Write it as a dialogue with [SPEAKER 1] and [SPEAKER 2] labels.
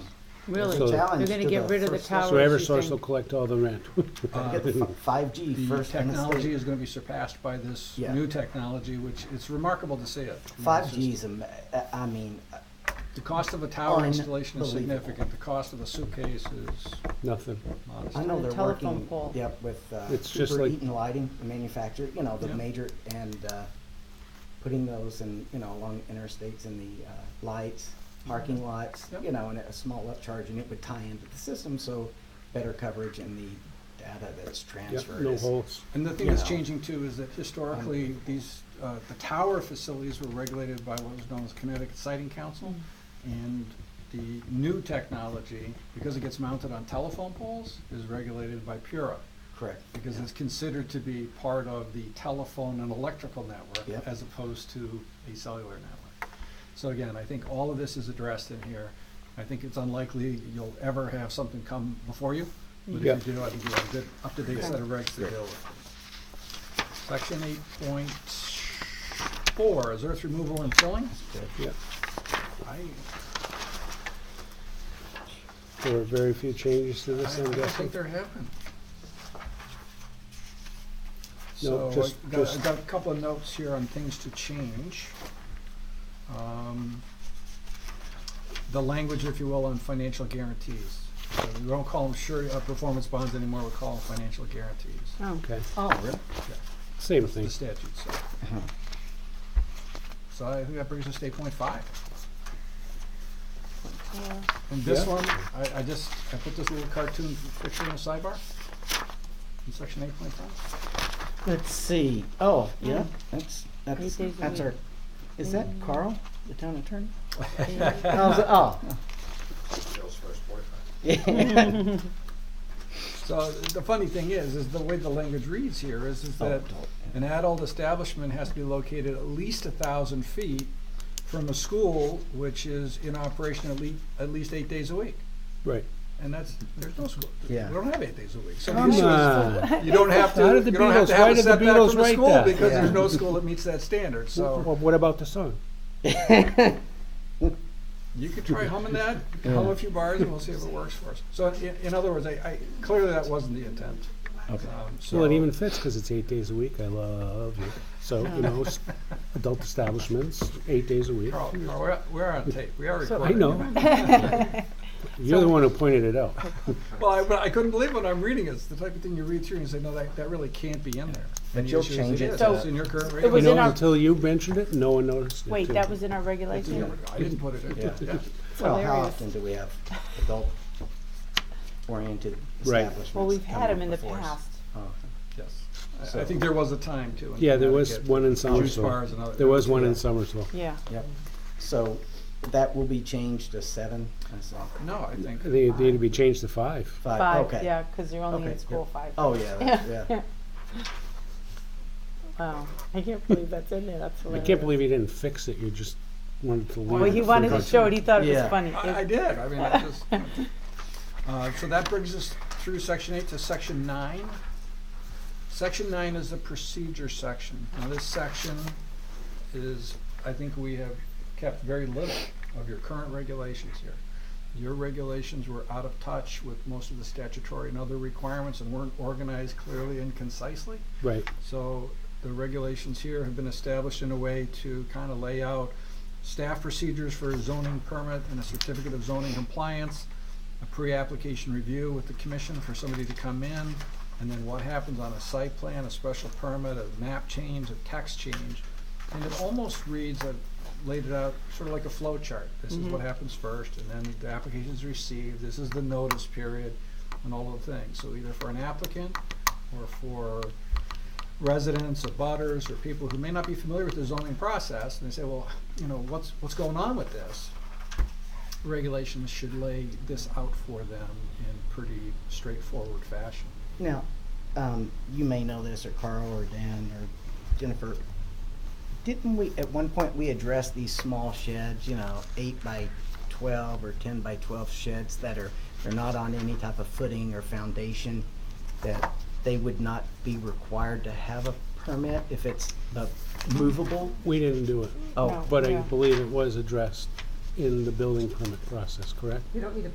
[SPEAKER 1] Really,
[SPEAKER 2] So-
[SPEAKER 1] they're gonna get rid of
[SPEAKER 3] Challenge to the
[SPEAKER 1] the
[SPEAKER 3] first-
[SPEAKER 2] So
[SPEAKER 1] towers, you
[SPEAKER 2] Eversource will
[SPEAKER 1] think?
[SPEAKER 2] collect all the rent.
[SPEAKER 4] Uh,
[SPEAKER 3] Get the fi- 5G
[SPEAKER 4] The
[SPEAKER 3] first. and the
[SPEAKER 4] technology
[SPEAKER 3] state.
[SPEAKER 4] is gonna be surpassed by this
[SPEAKER 3] Yeah.
[SPEAKER 4] new technology, which it's remarkable to see it. I mean, it's
[SPEAKER 3] Five
[SPEAKER 4] just-
[SPEAKER 3] G is, am- uh, I mean, uh,
[SPEAKER 4] The cost of a tower installation is
[SPEAKER 3] Unbelievable.
[SPEAKER 4] significant, the cost of a suitcase is
[SPEAKER 2] Nothing.
[SPEAKER 4] modest.
[SPEAKER 3] I know
[SPEAKER 1] the
[SPEAKER 3] they're
[SPEAKER 1] telephone
[SPEAKER 3] working,
[SPEAKER 1] pole.
[SPEAKER 3] yep, with uh,
[SPEAKER 2] It's just
[SPEAKER 3] Cooper
[SPEAKER 2] like-
[SPEAKER 3] Eaton Lighting, the manufacturer, you know, the
[SPEAKER 4] Yeah.
[SPEAKER 3] major, and uh, putting those in, you know, along interstates in the uh, lights,
[SPEAKER 1] Mm-hmm.
[SPEAKER 3] parking lots,
[SPEAKER 4] Yep.
[SPEAKER 3] you know, and a small upcharge, and it would tie into the system, so better coverage in the data that's
[SPEAKER 2] Yep,
[SPEAKER 3] transferred.
[SPEAKER 2] no
[SPEAKER 3] is-
[SPEAKER 2] holes.
[SPEAKER 4] And the thing
[SPEAKER 3] you
[SPEAKER 4] that's
[SPEAKER 3] know.
[SPEAKER 4] changing too is that historically, these, uh, the tower facilities were regulated by what was known as Connecticut Siting Council. And the new technology, because it gets mounted on telephone poles, is regulated by PURA.
[SPEAKER 3] Correct.
[SPEAKER 4] Because it's considered to be part of the telephone and electrical network
[SPEAKER 3] Yep.
[SPEAKER 4] as opposed to a cellular network. So again, I think all of this is addressed in here. I think it's unlikely you'll ever have something come before you. But if you do, I think you have a good, up-to-date set of regs to deal with. Section eight point four is earth removal and filling.
[SPEAKER 2] Yep.
[SPEAKER 4] I,
[SPEAKER 2] There are very few changes to
[SPEAKER 4] I I
[SPEAKER 2] this, I'm
[SPEAKER 4] don't
[SPEAKER 2] guessing.
[SPEAKER 4] think there have been.
[SPEAKER 2] No,
[SPEAKER 4] So
[SPEAKER 2] just-
[SPEAKER 4] I got, I
[SPEAKER 2] just-
[SPEAKER 4] got a couple of notes here on things to change. Um, The language, if you will, on financial guarantees. So We don't call them sure, uh, performance bonds anymore, we call them financial guarantees.
[SPEAKER 1] Oh,
[SPEAKER 2] Okay,
[SPEAKER 1] oh,
[SPEAKER 2] same thing.
[SPEAKER 4] the statute, so.
[SPEAKER 2] Uh-huh.
[SPEAKER 4] So I think that brings us to eight point five.
[SPEAKER 1] yeah.
[SPEAKER 4] And this
[SPEAKER 2] Yeah.
[SPEAKER 4] one, I, I just, I put this little cartoon picture in the sidebar, in section eight point five.
[SPEAKER 3] Let's see, oh, yeah,
[SPEAKER 1] Mm.
[SPEAKER 3] that's, that's,
[SPEAKER 1] days a
[SPEAKER 3] that's
[SPEAKER 1] week. Mm.
[SPEAKER 3] our, is that Carl, the town attorney?
[SPEAKER 1] Yeah.
[SPEAKER 3] I was- Oh. Yeah.
[SPEAKER 4] So the funny thing is, is the way the language reads here is, is that
[SPEAKER 3] Adult,
[SPEAKER 4] an adult establishment has to be located at least a thousand feet from a school which is in operation at least, at least eight days a week.
[SPEAKER 2] Right.
[SPEAKER 4] And that's, there's no school, we
[SPEAKER 3] Yeah.
[SPEAKER 4] don't have eight days a week. So the
[SPEAKER 2] Come
[SPEAKER 4] issue is-
[SPEAKER 2] on.
[SPEAKER 4] You don't have to,
[SPEAKER 2] How
[SPEAKER 4] you
[SPEAKER 2] did the
[SPEAKER 4] don't have
[SPEAKER 2] Beatles-
[SPEAKER 4] to
[SPEAKER 2] why
[SPEAKER 4] have a
[SPEAKER 2] did the
[SPEAKER 4] setback
[SPEAKER 2] Beatles
[SPEAKER 4] from a
[SPEAKER 2] write
[SPEAKER 4] school
[SPEAKER 2] that?
[SPEAKER 4] because there's
[SPEAKER 3] Yeah.
[SPEAKER 4] no school that meets that standard, so
[SPEAKER 2] Well, What about the sun?
[SPEAKER 4] you could try humming that, hum a few bars and we'll see if it works for us. So in, in other words, I, I, clearly that wasn't the intent.
[SPEAKER 3] Okay.
[SPEAKER 4] Um, so-
[SPEAKER 2] Well, it even fits because it's eight days a week. I love you. So, you know, s- adult establishments, eight days a week.
[SPEAKER 4] Carl, Carl, Oh, we're, we're on tape, we are
[SPEAKER 2] I
[SPEAKER 4] recording.
[SPEAKER 2] know. You're the one who pointed it out.
[SPEAKER 4] Well, I, but I couldn't believe when I'm reading it, it's the type of thing you read through and you say, no, that, that really can't be in there. And the
[SPEAKER 3] you'll
[SPEAKER 4] issue is
[SPEAKER 3] change it
[SPEAKER 4] is.
[SPEAKER 3] to-
[SPEAKER 4] It's in your current
[SPEAKER 1] It
[SPEAKER 2] You
[SPEAKER 1] was
[SPEAKER 4] regulations.
[SPEAKER 1] in
[SPEAKER 2] know,
[SPEAKER 1] our-
[SPEAKER 2] until you mentioned it, no one noticed it.
[SPEAKER 1] Wait,
[SPEAKER 2] too.
[SPEAKER 1] that was in our
[SPEAKER 4] Yeah,
[SPEAKER 1] regulation?
[SPEAKER 4] I didn't put it in,
[SPEAKER 3] Yeah.
[SPEAKER 4] yeah.
[SPEAKER 3] Well, how
[SPEAKER 1] Hilarious.
[SPEAKER 3] often do we have adult-oriented
[SPEAKER 2] Right.
[SPEAKER 3] establishments?
[SPEAKER 1] Well, we've had
[SPEAKER 3] coming
[SPEAKER 1] them in the
[SPEAKER 3] before us?
[SPEAKER 1] past.
[SPEAKER 3] Oh,
[SPEAKER 4] Yes. I- I
[SPEAKER 3] So-
[SPEAKER 4] think there was a time too. in
[SPEAKER 2] Yeah, there was
[SPEAKER 4] Connecticut.
[SPEAKER 2] one in
[SPEAKER 4] Juice
[SPEAKER 2] Somersville.
[SPEAKER 4] bars and other.
[SPEAKER 2] There was one in
[SPEAKER 3] Yeah.
[SPEAKER 2] Somersville.
[SPEAKER 1] Yeah.
[SPEAKER 3] Yep, so that will be changed to seven, that's all.
[SPEAKER 4] No, I think.
[SPEAKER 2] I think it needed to be changed to five.
[SPEAKER 3] Five,
[SPEAKER 1] Five,
[SPEAKER 3] okay.
[SPEAKER 1] yeah, because they're only
[SPEAKER 3] Okay,
[SPEAKER 1] in school five.
[SPEAKER 3] Oh, yeah, that- yeah.
[SPEAKER 1] Wow, I can't believe that's in there, that's
[SPEAKER 2] I
[SPEAKER 1] hilarious.
[SPEAKER 2] can't believe you didn't fix it. You just wanted to leave.
[SPEAKER 1] Well, he
[SPEAKER 2] it for
[SPEAKER 1] wanted to
[SPEAKER 2] good.
[SPEAKER 1] show it, he thought it was
[SPEAKER 3] Yeah.
[SPEAKER 1] funny.
[SPEAKER 4] I, I did, I mean, I just. Uh, so that brings us through section eight to section nine. Section nine is the procedure section. Now, this section is, I think we have kept very little of your current regulations here. Your regulations were out of touch with most of the statutory and other requirements and weren't organized clearly and concisely.
[SPEAKER 2] Right.
[SPEAKER 4] So the regulations here have been established in a way to kind of lay out staff procedures for a zoning permit and a certificate of zoning compliance, a pre-application review with the commission for somebody to come in, and then what happens on a site plan, a special permit, a map change, a text change. And it almost reads, I've laid it out sort of like a flow chart. This is what happens first, and then the application is received, this is the notice period, and all of the things. So either for an applicant or for residents or butters or people who may not be familiar with the zoning process, and they say, well, you know, what's, what's going on with this? Regulations should lay this out for them in pretty straightforward fashion.
[SPEAKER 3] Now, um, you may know this, or Carl, or Dan, or Jennifer. Didn't we, at one point, we addressed these small sheds, you know, eight by twelve or ten by twelve sheds that are, they're not on any type of footing or foundation, that they would not be required to have a permit if it's uh, movable?
[SPEAKER 2] We didn't do it,
[SPEAKER 3] Oh,
[SPEAKER 1] No.
[SPEAKER 2] but I
[SPEAKER 1] Yeah.
[SPEAKER 2] believe it was addressed in the building permit process, correct?